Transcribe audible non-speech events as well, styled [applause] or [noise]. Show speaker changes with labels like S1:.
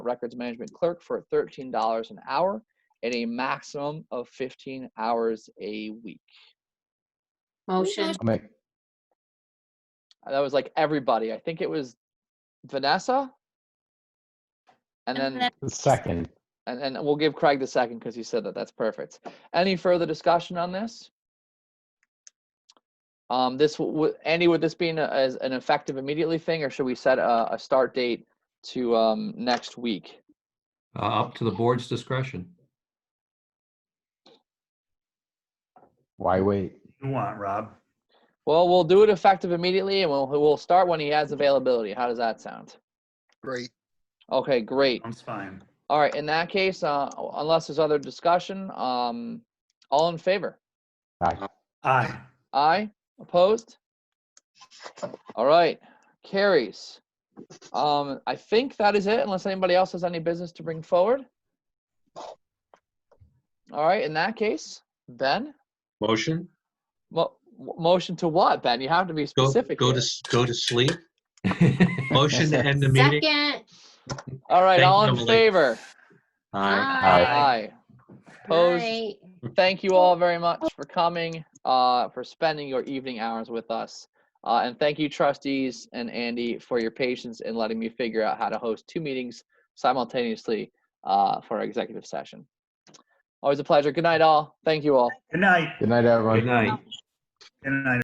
S1: records management clerk for $13 an hour and a maximum of 15 hours a week.
S2: Motion,
S3: I'll make,
S1: That was like everybody. I think it was Vanessa. And
S2: And
S1: then
S2: then-
S3: second,
S1: and, and we'll give Craig the second because he said that. That's perfect. Any further discussion on this? Um, this w- w- Andy, would this be an, as an effective immediately thing, or should we set a, a start date to um, next week?
S4: Uh, up to the board's discretion.
S3: why wait?
S5: You want, Rob?
S1: Well, we'll do it effective immediately, and we'll we'll start when he has availability. How does that sound?
S6: Great.
S1: Okay, great.
S5: Sounds fine.
S1: All right. In that case, uh, unless there's other discussion, um, all in favor?
S3: Aye.
S5: Aye.
S1: Aye. Opposed? All right. Carries. Um, I think that is it, unless anybody else has any business to bring forward. All right. In that case, Ben,
S7: Motion?
S1: mo- w- motion to what, Ben? You have to be
S7: Go,
S1: specific.
S7: go to,
S1: here.
S7: s- go
S4: [laughs]
S7: to sleep. Motion to end the meeting.
S2: second.
S1: All right.
S7: Thank
S1: All
S7: you,
S1: in
S7: Emily.
S1: favor?
S7: Aye.
S1: Aye. Opposed?
S2: Aye.
S1: thank you all very much for coming, uh, for spending your evening hours with us. Uh, and thank you, trustees and Andy, for your patience in letting me figure out how to host two meetings simultaneously uh, for our executive session. Always a pleasure. Good night, all. Thank you all.
S5: Good night.
S3: Good night, everyone.
S4: Good night.
S5: Good night.